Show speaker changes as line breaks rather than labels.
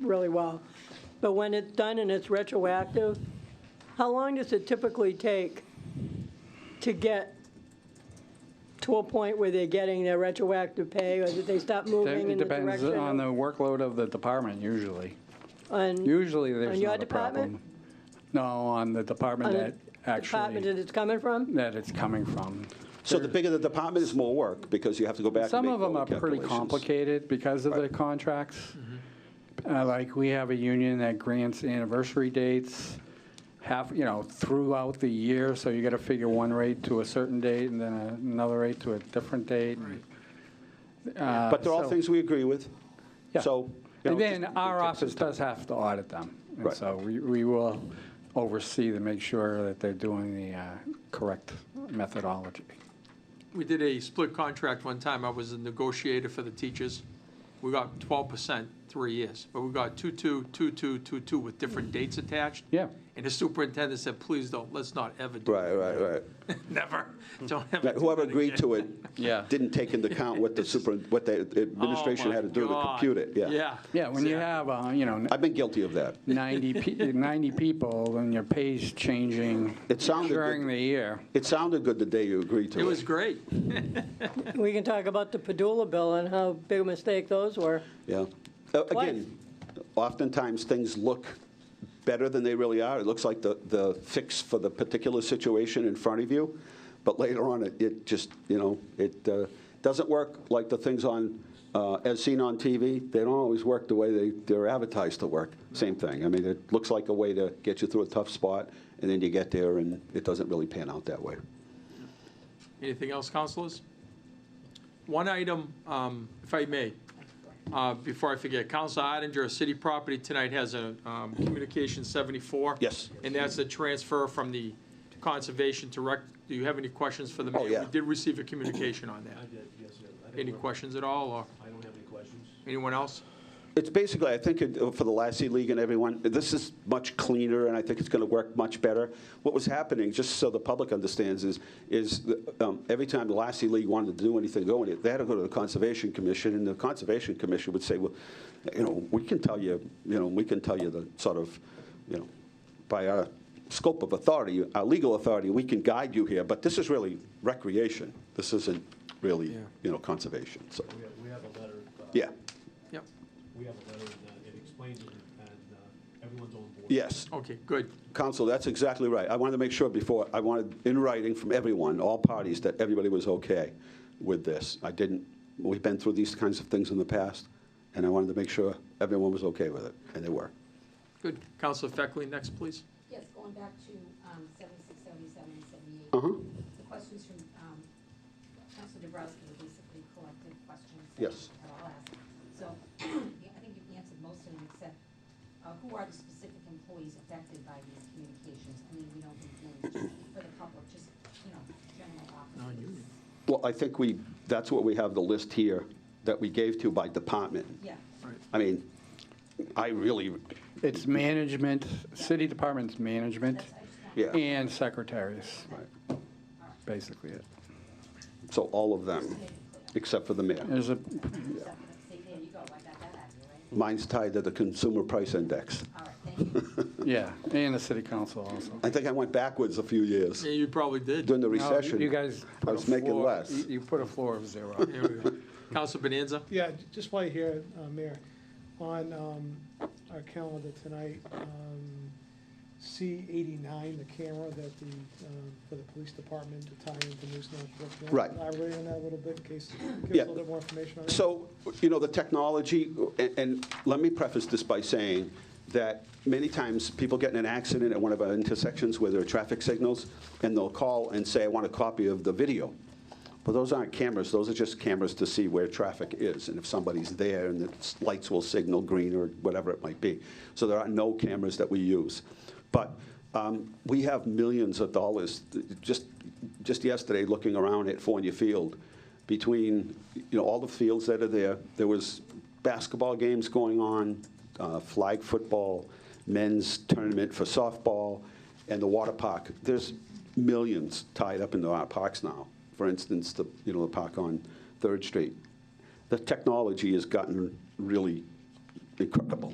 really well. But when it's done and it's retroactive, how long does it typically take to get to a point where they're getting their retroactive pay, or that they stop moving
It
in the
depends
direction?
on the
of-
workload of the department usually.
on-
Usually, there's
your
not a problem.
department?
No, on the department
on the
that
Department that
actually,
it's coming from?
that it's coming from.
So the bigger the department is more work because you have to go back and
Some
make
of them
all
are
the
pretty
calculations.
complicated because of the
Right. Mm-hmm.
contracts. Uh, Like, we have a union that grants anniversary dates half, you know, throughout the year, so you got to figure one rate to a certain date and then another rate to a different date. Uh,
But they're all
so-
things we agree with.
Yeah.
So. you know,
And then
just-
our
it takes
office
us time.
does have to audit them. And
Right.
so we we will oversee to make sure that they're doing the uh, correct methodology.
We did a split contract one time. I was a negotiator for the teachers. We got twelve percent, three years, but we got two-two, two-two, two-two with different dates attached.
Yeah.
And the superintendent said, please don't, let's not ever do
Right,
that.
right, right.
Never, don't ever.
That Whoever agreed to it
Yeah.
didn't take into account what the super, what the administration had to do to compute it, yeah.
Oh Yeah.
Yeah, when you have, uh, you know,
I've been guilty of that.
90 pe- 90 people and your pay's changing
It sounded
during
good.
the year.
It sounded good the day you agreed to it.
It was great.
We can talk about the Padula bill and how big a mistake those were.
Yeah. Uh, Again, oftentimes, things look better than they really are. It looks like the, the fix for the particular situation in front of you, but later on, it, it just, you know, it uh, doesn't work like the things on, uh, as seen on TV. They don't always work the way they, they're advertised to work. Same thing. I mean, it looks like a way to get you through a tough spot, and then you get there, and it doesn't really pan out that way.
Anything else, councilors? One item, um, if I may, uh, before I forget, Council Odinger, City Property tonight has a um, Communication 74.
Yes.
And that's a transfer from the Conservation Direct. Do you have any questions for the mayor?
Oh, yeah.
We did receive a communication on that.
did, yes, sir. I didn't
Any
work.
questions at all, or
I don't have any questions.
anyone else?
It's basically, I think, uh, for the Lassie League and everyone, this is much cleaner, and I think it's going to work much better. What was happening, just so the public understands, is, is the, um, every time the Lassie League wanted to do anything going, it, they had to go to the Conservation Commission, and the Conservation Commission would say, well, you know, we can tell you, you know, we can tell you the sort of, you know, by our scope of authority, our legal authority, we can guide you here, but this is really recreation. This isn't really, you know, conservation, so,
We have, we have a letter. uh,
yeah,
Yep.
We have a letter and uh, it explains it and uh, everyone's on board.
yes.
Okay, good.
Counsel, that's exactly right. I wanted to make sure before, I wanted in writing from everyone, all parties, that everybody was okay with this. I didn't, we've been through these kinds of things in the past, and I wanted to make sure everyone was okay with it, and they were.
Good. Councilor Feckley, next, please.
Yes, going back to um, 76, 77, and 78.
Uh-huh.
The questions from um, Councilor Dabrowski were basically collective questions. that
Yes.
I'll ask. So I think you've answered most of them, except uh, who are the specific employees affected by these communications? I mean, we don't include for the public, just, you know, general office.
Non-union.
Well, I think we, that's what we have the list here that we gave to by department.
Yeah.
I mean, I really,
It's management, city department's management
That's, I just want-
yeah,
and secretaries, basically it.
so all of them, except for the mayor.
There's a,
Except for the- see, there you go, I got that out of you, right?
Mine's tied to the consumer price index.
All right, thank you.
yeah, and the city council also.
I think I went backwards a few years
Yeah, you probably did.
during the
No, you-
recession.
You guys.
I
put
was
a
making
floor-
less.
you- You put a floor of zero.
There we go. Councilor Bonanza?
Yeah, j- just while you're here, uh, Mayor, on um, our calendar tonight, um, C-89, the camera that the, um, for the police department to tie into News North Brook.
Right.
Elaborate on that a little bit, in case, give
Yeah.
us a little bit more information on that.
So, you know, the technology, and, and let me preface this by saying that many times people get in an accident at one of our intersections where there are traffic signals, and they'll call and say, I want a copy of the video. But those aren't cameras, those are just cameras to see where traffic is, and if somebody's there, and the s- lights will signal green or whatever it might be. So there are no cameras that we use. But um, we have millions of dollars, th- just, just yesterday, looking around at Fournier Field, between, you know, all the fields that are there. There was basketball games going on, uh, flag football, men's tournament for softball, and the water park. There's millions tied up into our parks now. For instance, the, you know, the park on Third Street. The technology has gotten really incredible.